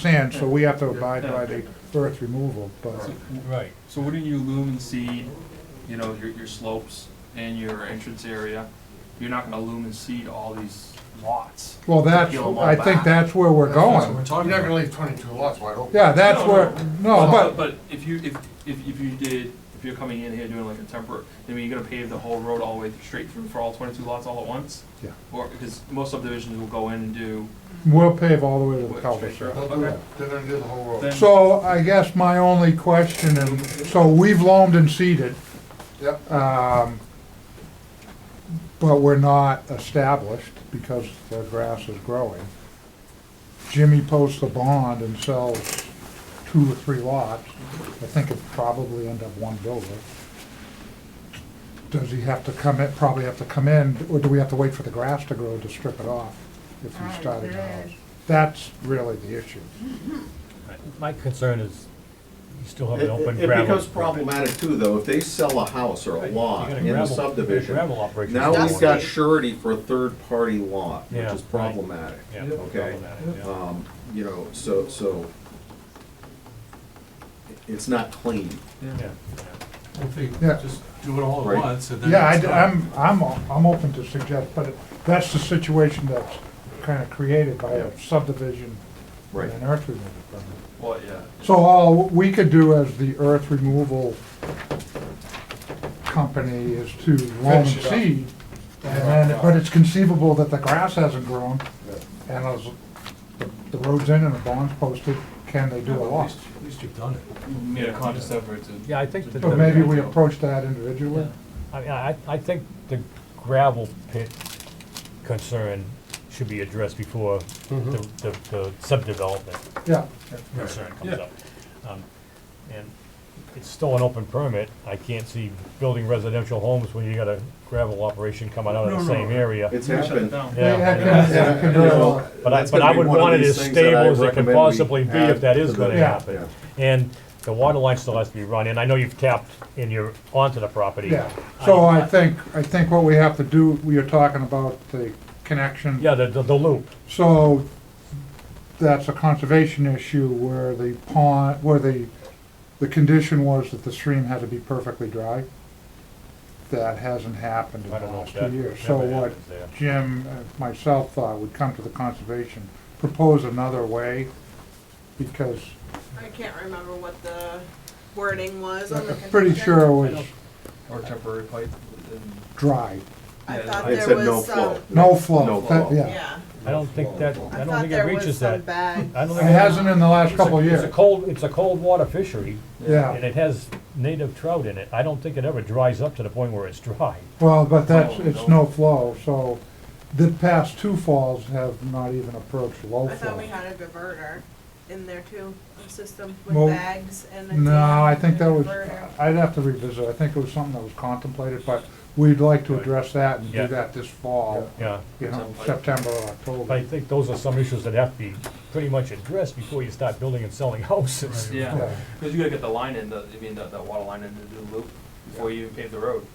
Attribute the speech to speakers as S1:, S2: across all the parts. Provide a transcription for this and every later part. S1: sand, so we have to abide by the earth removal, but
S2: Right.
S3: So wouldn't you lumen seed, you know, your, your slopes and your entrance area? You're not gonna lumen seed all these lots.
S1: Well, that's,
S3: Peel 'em all
S1: I think
S3: back.
S1: that's where we're going.
S4: You're not gonna leave twenty-two lots wide open.
S1: Yeah, that's
S3: No,
S1: where, no, but,
S3: But if you, if, if, if you did, if you're coming in here doing like a temporary, I mean, you're gonna pave the whole road all the way straight through for all twenty-two lots all at once?
S1: Yeah.
S3: Or, because most subdivisions will go in and do.
S1: we'll pave all the way to the
S3: Wait,
S1: cul
S3: sure.
S4: They'll do that. They're gonna do the whole road.
S3: Then-
S1: So I guess my only question, and, so we've loamed and seeded,
S4: Yep,
S1: um, but we're not established because the grass is growing. Jimmy posts a bond and sells two or three lots. I think it'd probably end up one builder. Does he have to come in, probably have to come in, or do we have to wait for the grass to grow to strip it off if we started a house? That's really the issue.
S2: My concern is you still have
S5: It
S2: an open
S5: it- it
S2: gravel.
S5: becomes problematic too, though, if they sell a house or a
S2: Right,
S5: lot
S2: you got a
S5: in the
S2: gravel-
S5: subdivision,
S2: gravel operation
S5: now
S2: going
S5: we've
S2: on.
S5: got surety for a third-party lot, which
S2: Yeah,
S5: is
S2: right.
S5: problematic.
S2: Yeah,
S5: Okay.
S2: problematic, yeah.
S5: Um, You know, so, so it's not clean.
S2: Yeah,
S6: If they
S1: Yeah.
S6: just do it all at
S5: Right.
S6: once and then.
S1: Yeah,
S6: it's done.
S1: I, am I'm, I'm open to suggest, but that's the situation that's kind of created by a subdivision and an earth removal permit.
S3: Well, yeah.
S1: So all we could do as the earth removal company is to loan
S4: Finish it up.
S1: seed. And then, but it's conceivable that the grass hasn't grown and as the- the road's in and the bond's posted, can they do
S6: Yeah,
S1: a
S6: but At
S1: lot?
S6: least, at least you've done it.
S3: Made a conscious effort to.
S2: Yeah, I think that.
S1: But maybe we approach that individually?
S2: I, mean, I, I think the gravel pit concern should be addressed before
S1: Mm-hmm.
S2: the, the the subdevelopment
S1: Yeah,
S2: concern comes
S6: Yeah.
S2: up. Um, And it's still an open permit, I can't see building residential homes when you got a gravel operation coming out of
S6: No,
S2: the
S6: no,
S2: same
S6: no.
S2: area.
S5: It's
S3: Shut it
S5: happened.
S3: down.
S2: Yeah,
S1: Yeah,
S2: yeah.
S1: yeah, yeah,
S5: And,
S1: can
S5: you
S1: do
S5: know,
S1: it.
S2: But I,
S5: that's
S2: but
S5: gonna
S2: I
S5: be
S2: would
S5: one of
S2: want it
S5: these
S2: as
S5: things that I
S2: stable as it can
S5: recommend we
S2: possibly be
S5: add
S2: if that is
S5: to the-
S2: gonna
S1: Yeah.
S2: happen.
S5: Yeah.
S2: And the water line still has to be run, and I know you've tapped and you're onto the property.
S1: Yeah, so I think, I think what we have to do, we are talking about the connection.
S2: Yeah, the, the the loop,
S1: So that's a conservation issue where the pond, where the, the condition was that the stream had to be perfectly dry. That hasn't happened in the
S2: I don't know
S1: last
S2: if
S1: two
S2: that
S1: years. So
S2: ever
S1: what
S2: happens there.
S1: Jim, uh, myself thought would come to the conservation, propose another way because
S7: I can't remember what the wording was on
S1: I'm
S7: the condition.
S1: pretty sure it was
S3: Or temporary pipe, then.
S1: dry.
S7: I
S3: Yeah,
S7: thought
S5: I had
S7: there
S5: said no
S7: was
S5: flow.
S7: some,
S1: No flow,
S5: No
S1: that,
S5: flow.
S1: yeah.
S7: yeah.
S2: I don't think that, I
S7: I
S2: don't
S7: thought
S2: think it
S7: there was
S2: reaches
S7: some
S2: that.
S7: bad.
S2: I don't
S1: It
S2: think it-
S1: hasn't in the last couple of
S2: It's a
S1: years,
S2: cold, it's a cold water fishery, and
S1: yeah.
S2: it has native trout in it. I don't think it ever dries up to the point where it's dry.
S1: Well, but that's,
S3: No,
S1: it's
S3: no.
S1: no flow, so the past two falls have not even approached low
S7: I thought we
S1: flow.
S7: had a diverter in there too, a system
S1: Well,
S7: with bags and a.
S1: No,
S7: dam
S1: I think
S7: and
S1: that
S7: a
S1: was,
S7: diverter.
S1: I'd have to revisit, I think it was something that was contemplated, but we'd like to
S2: Right.
S1: address that and
S2: Yeah.
S1: do that this fall,
S2: Yeah,
S1: you know,
S3: Sounds like-
S1: September or
S2: but I
S1: October.
S2: think those are some issues that have to be pretty much addressed before you start building and selling houses.
S3: Yeah,
S1: Yeah.
S3: because you gotta get the line in, the, I mean, that, that water line in to do the loop before you even pave the road.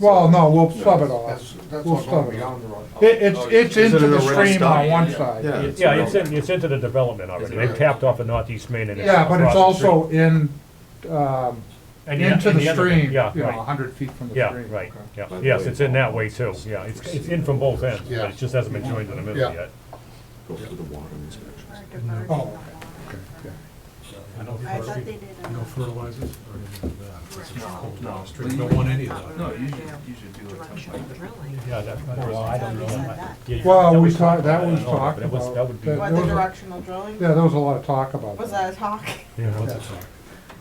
S1: Well, no, we'll sub it
S4: that's,
S1: off.
S4: that's
S1: We'll
S4: all
S1: stop
S4: going
S1: it.
S4: beyond the road.
S3: oh,
S1: It, it's, it's
S5: Is it
S1: into
S5: an
S1: the
S5: array
S1: stream
S5: stop?
S1: on one
S3: Yeah.
S1: side.
S2: Yeah, it's in, it's into the development already. They've tapped off of Northeast Main and it's
S1: Yeah, but it's
S2: across the
S1: also in, um,
S2: street. And the-
S1: into
S2: and
S1: the
S2: other-
S1: stream, you know,
S2: Yeah,
S1: a
S2: right,
S1: hundred feet from the
S2: yeah,
S1: stream.
S2: right, yeah.
S5: But
S2: Yes,
S5: really-
S2: it's in that way too, yeah. It's, it's in from both ends,
S4: Yeah.
S2: but it just hasn't been joined in the middle
S4: Yeah.
S2: yet.
S5: Go through the water inspection.
S7: Or diverter.
S1: Oh, okay, yeah.
S6: I don't
S7: I
S6: fertil-
S7: thought they did.
S6: No
S7: a-
S6: fertilizers or anything like that. It's just cold
S3: No,
S6: water
S3: no.
S6: stream. Don't want any of that.
S3: No, you should, you should do a temp pipe.
S2: Yeah, that, I don't know, I don't know. I- yeah,
S1: Well,
S2: that
S1: we
S2: was
S1: talked, that
S2: I
S1: was
S2: don't know,
S1: talked
S2: but it was-
S1: about.
S2: That would be.
S1: that-
S7: What,
S1: there
S7: the
S1: was a-
S7: directional drilling?
S1: Yeah, there was a lot of talk about
S7: Was
S1: that.
S7: that a talk?
S2: Yeah, what's it-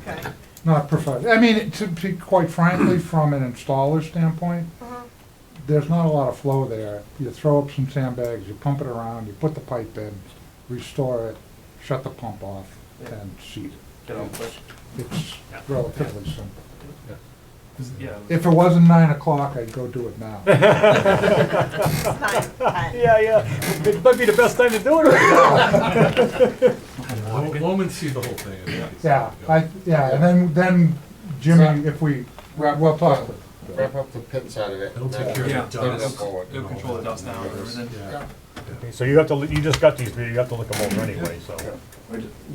S7: Okay.
S1: Not preferred. I mean, to be quite frankly, from an installer standpoint,
S7: Uh-huh.
S1: there's not a lot of flow there. You throw up some sandbags, you pump it around, you put the pipe in, restore it, shut the pump off, and seat
S3: Get on quick.
S1: it. It's relatively simple.
S3: 'Cause, Yeah.
S1: If it wasn't nine o'clock, I'd go do it now.
S7: It's not- I-
S2: Yeah, yeah, it might be the best time to do it right
S6: Lo- Loam and see the whole thing. I think.
S1: Yeah, I, yeah, and then, then Jimmy, if we, we'll talk.
S4: Wrap up the pit side of it.
S6: It'll take care of
S3: Yeah,
S6: the dust.
S3: it'll control the dust down and everything.
S6: Yeah.
S2: Okay, So you have to, you just got these, but you have to look them over anyway, so.
S5: I ju-